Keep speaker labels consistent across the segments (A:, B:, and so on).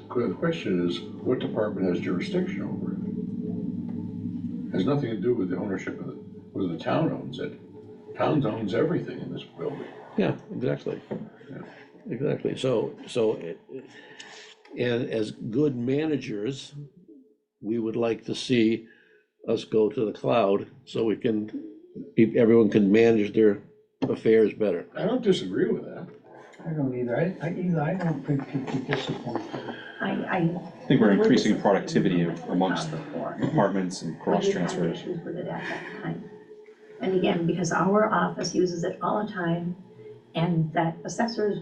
A: the question is, what department has jurisdiction over it? Has nothing to do with the ownership of the, whether the town owns it. Town owns everything in this building.
B: Yeah, exactly. Exactly, so, so, it- it- and as good managers, we would like to see us go to the cloud, so we can, pe- everyone can manage their affairs better.
A: I don't disagree with that.
C: I don't either, I, I, either, I don't think people disappointed.
D: I, I.
E: I think we're increasing productivity amongst the departments and cross
D: We had
E: transfers.
D: issues with it at that time. And again, because our office uses it all the time, and that assessors,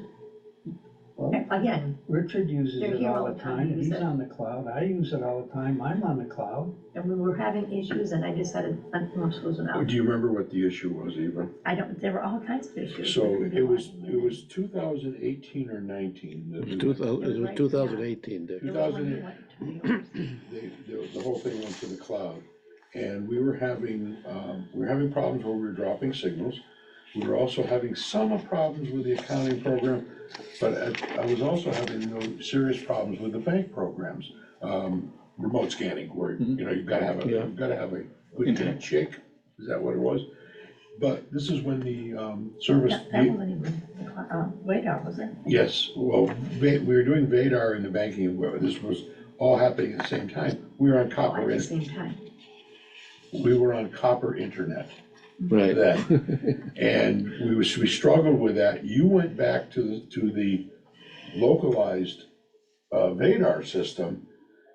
C: Well,
D: again,
C: Richard uses
D: They're
C: it
D: here
C: all the time,
D: use
C: he's
D: it.
C: on the cloud, I use it all the time, I'm on the cloud.
D: and we were having issues, and I decided, I'm not losing out.
A: Do you remember what the issue was, Eva?
D: I don't, there were all kinds of issues.
A: So it was, it was two thousand eighteen or nineteen.
B: It
A: that
B: was
A: we-
B: two thou- it was two thousand eighteen, Dick.
D: It was when you went to-
A: they, the, the whole thing went to the cloud. And we were having, um, we were having problems where we were dropping signals. We were also having some problems with the accounting program, but I, I was also having you know, serious problems with the bank programs. Um, remote scanning, where, you know, you've gotta have a,
B: Yeah.
A: you've gotta have a good
E: Internet.
A: chick, is that what it was? But this is when the, um, service,
D: That that wasn't even, the cl- uh, radar, was it?
A: Yes, well, Va- we were doing Vadar and the banking, well, this was all happening at the same time. We were on
D: All
A: copper,
D: At the
A: in-
D: same time.
A: we were on copper internet
B: Right,
A: then. And we was, we struggled with that. You went back to, the to the localized uh, Vadar system.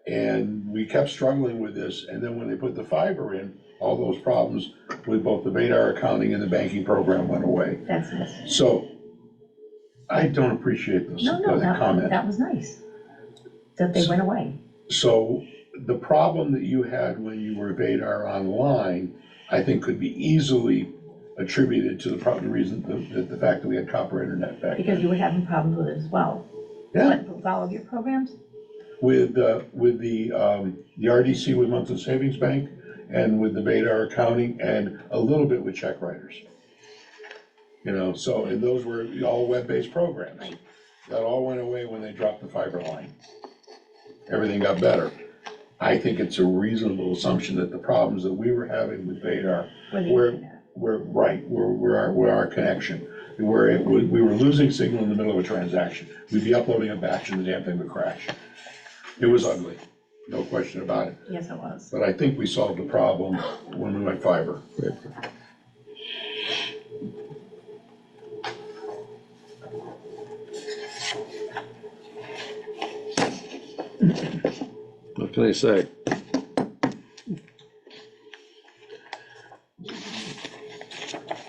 A: And we kept struggling with this. And then when they put the fiber in, all those problems with both the Vadar accounting and the banking program went away.
D: That's nice.
A: So I don't appreciate this
D: No, no,
A: uh,
D: that,
A: comment.
D: that was nice. That they went away.
A: So the problem that you had when you were Vadar online, I think could be easily attributed to the probably reason, the, the, the fact that we had copper internet back
D: Because
A: then.
D: you were having problems with it as well.
A: Yeah,
D: But with all of your programs,
A: with, uh, with the, um, the RDC with Monson Savings Bank and with the Vadar accounting and a little bit with check writers. You know, so, and those were all web-based programs.
D: Right.
A: That all went away when they dropped the fiber line. Everything got better. I think it's a reasonable assumption that the problems that we were having with Vadar
D: were the
A: Where-
D: internet.
A: were right, were, were our, were our connection. Where it, would- we were losing signal in the middle of a transaction. We'd be uploading a batch and the damn thing would crash. It was ugly, no question about it.
D: Yes, it was.
A: But I think we solved the problem when we went fiber.
B: what can I say?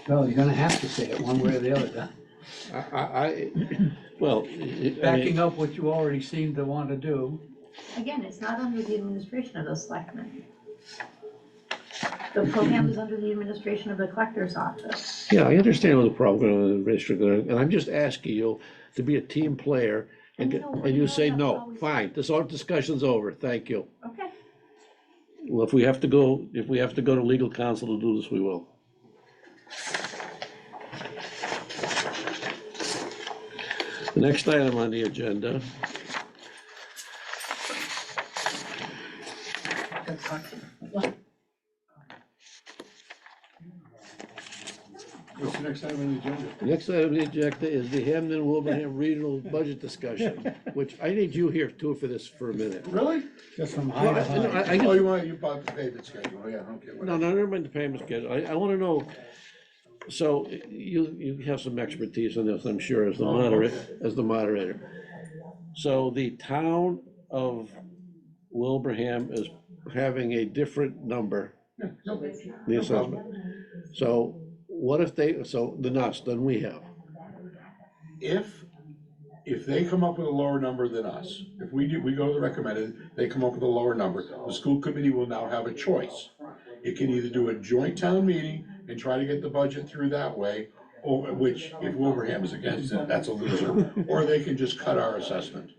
C: Well, you're gonna have to say it one way or the other, Don.
B: I, I, I- well, I- I mean-
C: Backing up what you already seem to want to do,
D: Again, it's not under the administration of the selectmen. The program is under the administration of the collector's office.
B: Yeah, I understand what the problem is, administrator, and I'm just asking you to be a team player, and,
D: I know,
B: and you
D: I know
B: say,
D: that's
B: no,
D: always-
B: fine, this all, discussion's over, thank you.
D: Okay,
B: Well, if we have to go, if we have to go to legal counsel to do this, we will. The next item on the agenda,
A: What's the next item on the agenda?
B: the next item on the agenda is the Hamden Wilbraham Regional Budget Discussion, which I need you here too for this for a minute.
A: Really?
C: just from
B: No,
C: high to
B: I- no,
C: high.
B: I- I just-
A: Oh, you want, you bought the payment schedule, yeah, okay.
B: No,
A: whatever.
B: no, never mind the payment schedule, I, I wanna know, so you, you have some expertise on this, I'm sure, as the moderator, as the moderator. So the town of Wilbraham is having a different number,
A: Yeah, no big deal.
B: the assessment. So what if they, so the us than we have,
A: If, if they come up with a lower number than us, if we do, we go to the recommended, they come up with a lower number, the school committee will now have a choice. It can either do a joint town meeting and try to get the budget through that way, or, which, if Wilbraham is against it, that's a loser. Or they can just cut our assessment.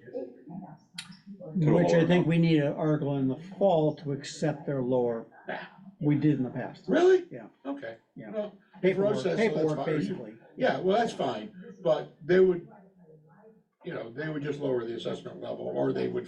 C: Which I think we need an article in the fall to accept their lower, we did in the past.
A: Really?
C: Yeah.
A: Okay.
C: Yeah.
A: Well,
C: Paperwork,
A: Process, so that's fine.
C: paperwork, basically.
A: Yeah, well, that's fine, but they would, you know, they would just lower the assessment level, or they would